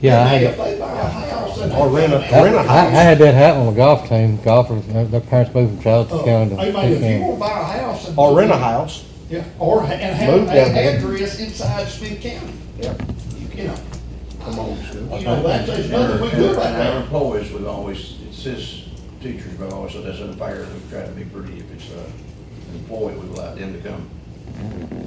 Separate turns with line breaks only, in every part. Yeah, I
They
had,
If they buy a house and.
Or rent a-
that-
rent a
I, I had that happen on the golf team. Golfers, their their parents moved from Charlotte
Oh,
to County
I mean,
to
if you
County.
wanna buy a house and.
Or rent a house.
Yeah, or, ha- and have
Move down
an
there.
address inside Smith County,
Yeah.
you know.
Come on, Sue.
You know, that's, there's nothing we can do about
Our
that.
employees would always, it says teachers, but I always said that's unfair, we try to be pretty, if it's uh, an employee, we allow them to come.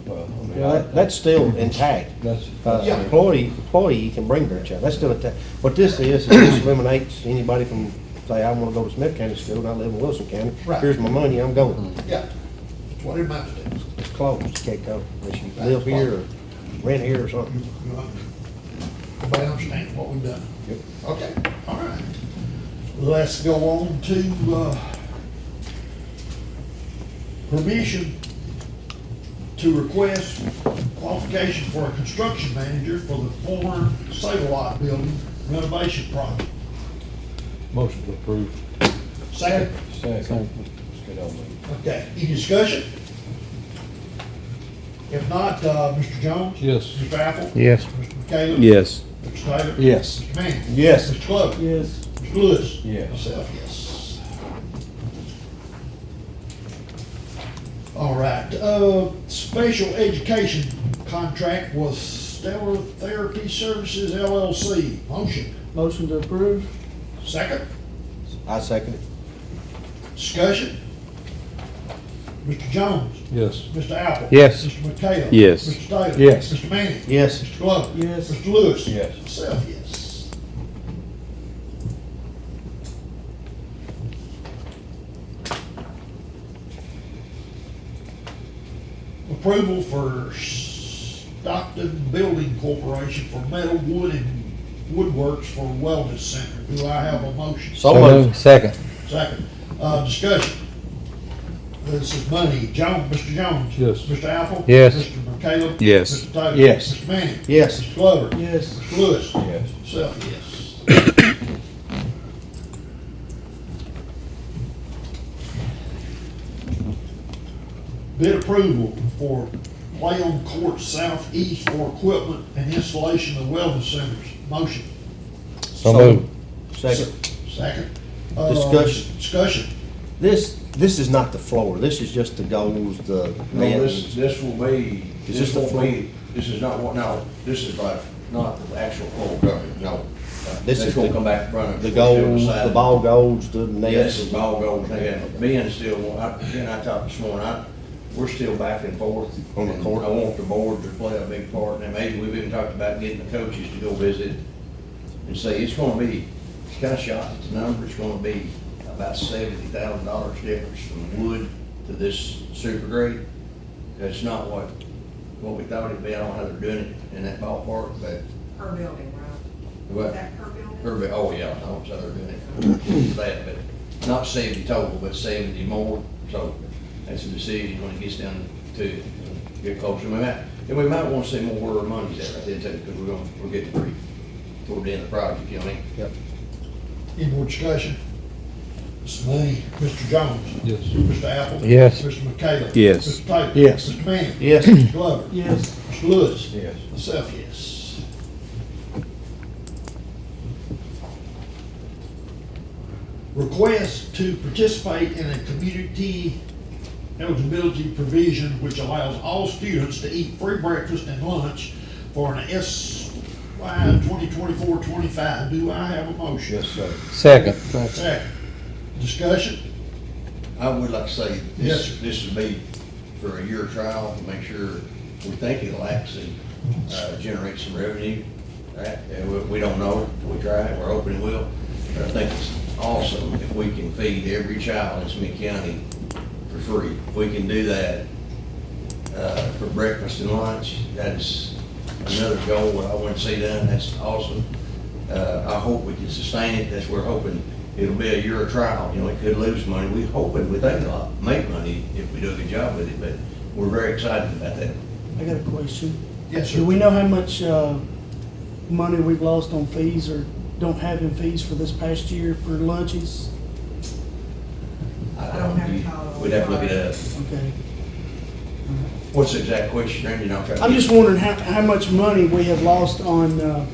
Well, I mean,
Yeah, that- That's still intact.
That's-
Uh,
Yeah.
Employee, employee, you can bring their child, that's still intact. What this is, is this eliminates anybody from, say, I wanna go to Smith County School, and I live in Wilson County.
Right.
Here's my money, I'm going.
Yeah, that's what it amounts to.
It's closed, you can't go, unless you live here or rent here or something.
You know, Everybody understand what we've done?
Yep.
Okay, all right. Let's go on to, uh, permission to request qualification for a construction manager for the former sale lot building renovation project.
Motion to approve.
Second,
Second.
okay, any discussion? If not, uh, Mr. Jones?
Yes.
Mr. Apple?
Yes.
Mr. Caleb?
Yes.
Mr. Taylor?
Yes.
Mr. Manning?
Yes.
Mr. Glover?
Yes.
Mr. Lewis?
Yes.
Myself, yes. All right, uh, special education contract was Stellar Therapy Services LLC. Motion,
Motion to approve?
second,
I second it.
discussion. Mr. Jones?
Yes.
Mr. Apple?
Yes.
Mr. McHale?
Yes.
Mr. Taylor?
Yes.
Mr. Manning?
Yes.
Mr. Glover?
Yes.
Mr. Lewis?
Yes.
Myself, yes. Approval for Stockton Building Corporation for metal wood and woodworks for wellness center. Do I have a motion?
So moved.
Second.
Second, uh, discussion. This is money. Jones, Mr. Jones.
Yes.
Mr. Apple.
Yes.
Mr. McCallum.
Yes.
Mr. Taylor.
Yes.
Mr. Manning.
Yes.
Mr. Glover.
Yes.
Mr. Lewis.
Yes.
Self, yes. Bid approval for play on court southeast for equipment and installation of wellness centers. Motion.
So moved.
Second.
Second. Uh,
Discussion.
Discussion.
This, this is not the floor, this is just the goals, the
No,
nets.
this, this will be,
Is
this
this the
will be, this is not what, no, this is like, not the actual full coverage, no.
This
This
is
will
the-
come back running.
The goals, the ball goals, the
Yes,
nets.
the ball goes there. Me and still, want- I, again, I talked this morning, I, we're still back and forth.
On the court.
I want the board to play a big part, and maybe we've even talked about getting the coaches to go visit and say, it's gonna be, it's kinda shot at the number, it's gonna be about seventy thousand dollars difference from wood to this super grade. That's not what, what we thought it'd be, I don't know how they're doing it in that ballpark, but,
Per building, right? Is
but
that per building?
Kirby, oh yeah, I was other than it, that, but not seventy total, but seventy more, so that's a decision when it gets down to it, get closer, we might, and we might wanna see more where our money's at right then too, because we're gonna, we're getting pretty toward the end of the project, you know what I mean?
Yep.
Any more discussion? Mr. Mooney, Mr. Jones.
Yes.
Mr. Apple.
Yes.
Mr. McHale.
Yes.
Mr. Taylor.
Yes.
Mr. Manning.
Yes.
Mr. Glover.
Yes.
Mr. Lewis.
Yes.
Myself, yes. Request to participate in a community eligibility provision which allows all students to eat free breakfast and lunch for an SY 2024-25. Do I have a motion?
Yes, sir.
Second.
Second. Discussion?
I would like to say,
Yes, sir.
this, this would be for a year trial to make sure, we think it'll actually, uh, generate some revenue. Right, and we, we don't know, we try it, we're hoping it will, but I think it's awesome if we can feed every child in Smith County for free. If we can do that, uh, for breakfast and lunch, that is another goal that I want to see done, that's awesome. Uh, I hope we can sustain it, that's, we're hoping, it'll be a year of trial, you know, it could lose money, we hoping, we think it'll make money if we do a good job with it, but we're very excited about that.
I got a question.
Yes, sir.
Do we know how much, uh, money we've lost on fees or don't have in fees for this past year for lunches?
I
I don't
don't,
have a
you-
title.
we'd have to look it up.
Okay.
What's the exact question, Randy, and I'll try to.
I'm just wondering how, how much money we have lost on, uh,